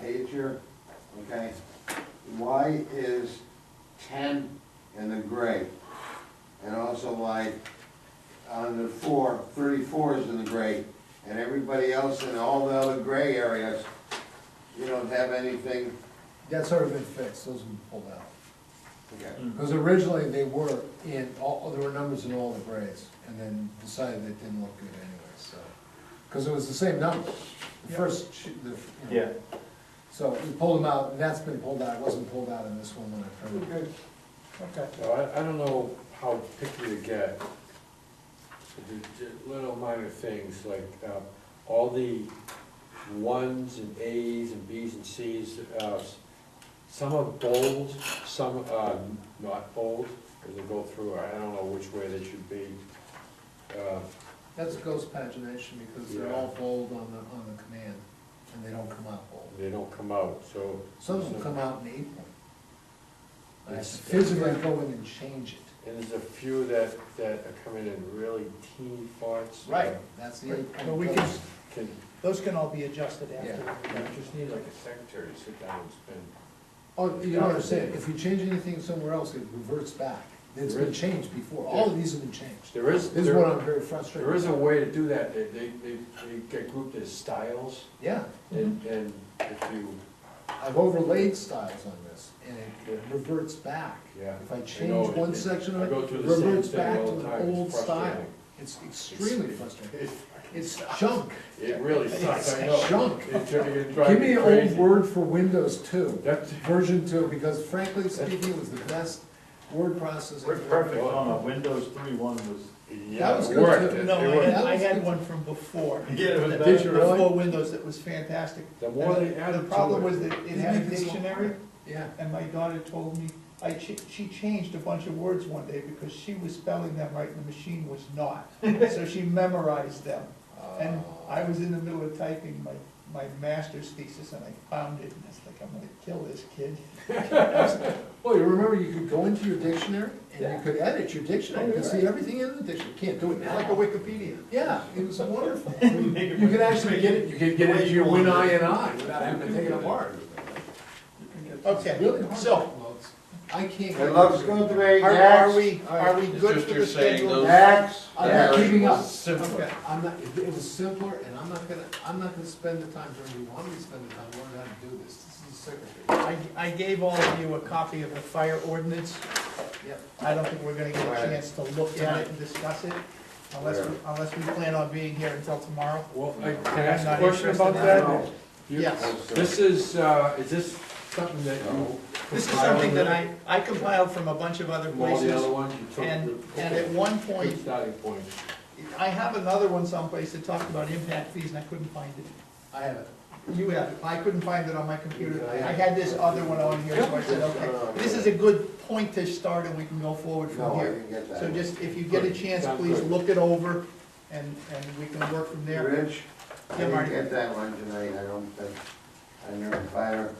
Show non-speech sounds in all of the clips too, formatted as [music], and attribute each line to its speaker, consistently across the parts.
Speaker 1: page here, okay? Why is ten in the gray? And also why on the four, thirty-four is in the gray, and everybody else in all the other gray areas, you don't have anything,
Speaker 2: That's already been fixed, those have been pulled out.
Speaker 1: okay?
Speaker 2: Because originally they were in, all, there were numbers in all the grades, and then decided they didn't look good anyway, so. Because it was the same number, the first, sh- the, you know. So we pulled them out, and that's been pulled out, it wasn't pulled out in this one when I printed it.
Speaker 3: Good, okay.
Speaker 4: So I, I don't know how picky to get. The- the Little minor things like, uh, all the ones and As and Bs and Cs, uh, some are bold, some are not bold, because they go through, I don't know which way they should be. Uh,
Speaker 2: That's ghost pagination, because they're all bold on the, on the command, and they don't come out bold.
Speaker 4: They don't come out, so.
Speaker 2: Some of them come out in eight point. I have to
Speaker 4: It's-
Speaker 2: physically go in and change it.
Speaker 4: And there's a few that, that are coming in really teeny fonts.
Speaker 2: That's the eight
Speaker 3: But we
Speaker 2: point
Speaker 3: can-
Speaker 2: ghost.
Speaker 4: Can,
Speaker 3: Those can all be adjusted
Speaker 2: Yeah.
Speaker 4: you
Speaker 3: after.
Speaker 4: just need like a secretary to sit down and spend.
Speaker 2: Oh, you don't understand, if you change anything somewhere else, it reverts back. It's been changed before, all of these have been changed.
Speaker 4: There is,
Speaker 2: This is what I'm
Speaker 4: there,
Speaker 2: very frustrated.
Speaker 4: there is a way to do that, they, they, they they get grouped as styles,
Speaker 2: Yeah,
Speaker 4: and,
Speaker 2: Mm-hmm.
Speaker 4: and if you,
Speaker 2: I've overlaid styles on this, and it reverts back.
Speaker 4: yeah.
Speaker 2: If I
Speaker 4: I know,
Speaker 2: change one
Speaker 4: it-
Speaker 2: section of
Speaker 4: I
Speaker 2: it,
Speaker 4: go through the same
Speaker 2: reverts
Speaker 4: thing
Speaker 2: back
Speaker 4: all
Speaker 2: to
Speaker 4: the
Speaker 2: an
Speaker 4: time. It's
Speaker 2: old style.
Speaker 4: frustrating.
Speaker 2: It's extremely frustrating.
Speaker 4: It
Speaker 2: [laughs] It's junk.
Speaker 4: it really sucks, I know.
Speaker 2: It's junk.
Speaker 4: It's gonna get drive
Speaker 2: Give me an old
Speaker 4: crazy.
Speaker 2: word for Windows two,
Speaker 4: That's-
Speaker 2: version two, because frankly speaking, it was the best word processor.
Speaker 5: Worked perfect on a Windows three one was.
Speaker 4: Yeah,
Speaker 2: was
Speaker 4: it
Speaker 2: good,
Speaker 4: worked.
Speaker 2: too.
Speaker 4: It-
Speaker 3: No,
Speaker 4: it
Speaker 3: I
Speaker 4: worked.
Speaker 3: had, I had one from before.
Speaker 5: Yeah, it was
Speaker 3: that-
Speaker 5: better.
Speaker 3: Before Windows, that was fantastic.
Speaker 4: The more
Speaker 3: And
Speaker 4: they added to it.
Speaker 3: The problem was that it
Speaker 2: You
Speaker 3: had a
Speaker 2: make this one-
Speaker 3: dictionary,
Speaker 2: Yeah,
Speaker 3: and my daughter told me, I, ch- she changed a bunch of words one day because she was spelling them right and the machine was not. So
Speaker 4: [laughs]
Speaker 3: she memorized them. And I was in the middle of typing my, my master's thesis and I found it and it's like, I'm gonna kill this kid.
Speaker 2: well, you remember, you could go into your dictionary, and you could edit your dictionary, you could
Speaker 3: Oh, Yeah.
Speaker 2: see everything in the dictionary, can't do it now.
Speaker 3: Wikipedia.
Speaker 2: Yeah, it
Speaker 3: [laughs]
Speaker 2: was wonderful.
Speaker 5: Make
Speaker 2: You could actually get it, you could get it to your win I and I without having to take it apart. It's
Speaker 3: Okay,
Speaker 2: Really hard.
Speaker 3: so,
Speaker 2: I can't.
Speaker 1: It looks good to me,
Speaker 3: are, are
Speaker 1: next,
Speaker 3: we, are we good for the schedule?
Speaker 1: next,
Speaker 2: I'm not
Speaker 1: next.
Speaker 2: keeping up.
Speaker 3: Okay.
Speaker 2: I'm not, it it was simpler, and I'm not gonna, I'm not gonna spend the time, Jeremy, you want me to spend the time learning how to do this, this is the secretary.
Speaker 3: I, I gave all of you a copy of the fire ordinance.
Speaker 2: Yeah.
Speaker 3: I don't think we're gonna get a
Speaker 1: Right.
Speaker 3: chance to look at it and discuss it, unless, we- unless we plan on being here until tomorrow.
Speaker 4: Well, I can I ask a
Speaker 3: Not
Speaker 4: question
Speaker 3: interested
Speaker 4: about
Speaker 3: in
Speaker 4: that?
Speaker 3: all.
Speaker 4: You-
Speaker 3: Yes.
Speaker 4: This is, uh, is this something that you?
Speaker 3: This is
Speaker 4: compiled
Speaker 3: something that
Speaker 4: with
Speaker 3: I, I compiled from a bunch of other
Speaker 4: From all the
Speaker 3: places,
Speaker 4: other ones you took?
Speaker 3: and,
Speaker 4: the-
Speaker 3: and
Speaker 4: okay.
Speaker 3: at one
Speaker 4: Good
Speaker 3: point,
Speaker 4: starting point.
Speaker 3: I have another one someplace that talked about impact fees, and I couldn't find it.
Speaker 2: I have it.
Speaker 3: You have it, I couldn't find it on my computer, I had this other one on here, so I said, okay, this is a good point to start, and we can go forward
Speaker 1: No,
Speaker 3: from
Speaker 1: I
Speaker 3: here.
Speaker 1: didn't get that.
Speaker 3: So just, if you get a chance,
Speaker 4: Sounds
Speaker 3: please
Speaker 4: good.
Speaker 3: look it over, and, and we can work from there.
Speaker 1: Rich, I
Speaker 3: Yeah,
Speaker 1: didn't
Speaker 3: Marty.
Speaker 1: get that one tonight, I don't think, on your fire.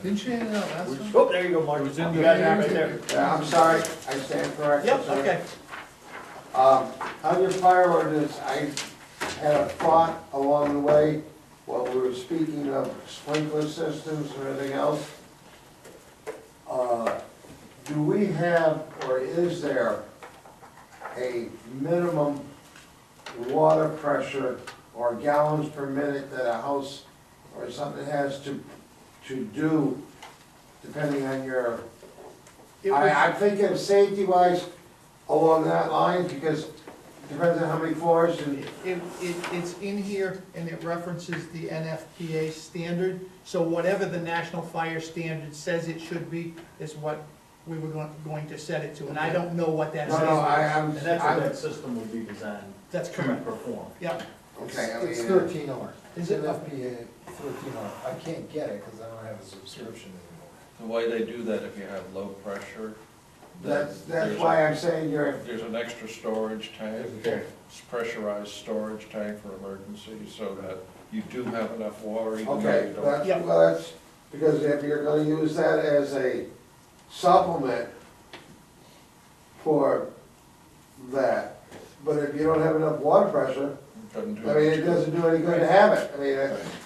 Speaker 2: Didn't you hand it out last time?
Speaker 5: Oh, there you go, Mark.
Speaker 4: It was in
Speaker 5: You
Speaker 4: the-
Speaker 5: got that right there.
Speaker 1: Yeah, I'm sorry, I stand corrected.
Speaker 3: Yep, okay.
Speaker 1: Um, on your fire ordinance, I had a thought along the way, while we were speaking of sprinkler systems or anything else. Uh, Do we have, or is there, a minimum water pressure or gallons per minute that a house or something has to, to do, depending on your
Speaker 3: It was-
Speaker 1: I, I'm thinking safety wise along that line, because depends on how many floors and,
Speaker 3: It, it, it's in here and it references the NFPA standard, so whatever the National Fire Standard says it should be is what we were going, going to set it to, and I don't know what that
Speaker 1: no, no, I,
Speaker 3: says.
Speaker 1: I'm,
Speaker 5: And that's what
Speaker 1: I'm,
Speaker 5: that system will be designed
Speaker 3: That's
Speaker 5: to
Speaker 3: correct,
Speaker 5: perform.
Speaker 3: yep.
Speaker 1: okay, I
Speaker 2: It's
Speaker 1: mean,
Speaker 2: thirteen R.
Speaker 3: Is it?
Speaker 2: FBA thirteen R. I can't get it because I don't have a subscription anymore.
Speaker 6: The way they do that, if you have low pressure, then
Speaker 1: that's, that's
Speaker 6: there's,
Speaker 1: why
Speaker 6: a-
Speaker 1: I'm saying you're,
Speaker 6: there's an extra storage tank,
Speaker 4: Okay.
Speaker 6: it's pressurized storage tank for emergencies, so that you do have enough water, even though
Speaker 1: okay,
Speaker 6: you don't.
Speaker 1: that's,
Speaker 3: Yeah.
Speaker 1: well, that's, because if you're gonna use that as a supplement for that, but if you don't have enough water pressure,
Speaker 6: Couldn't do
Speaker 1: I mean, it
Speaker 6: it.
Speaker 1: doesn't do any good to have it, I mean, that's,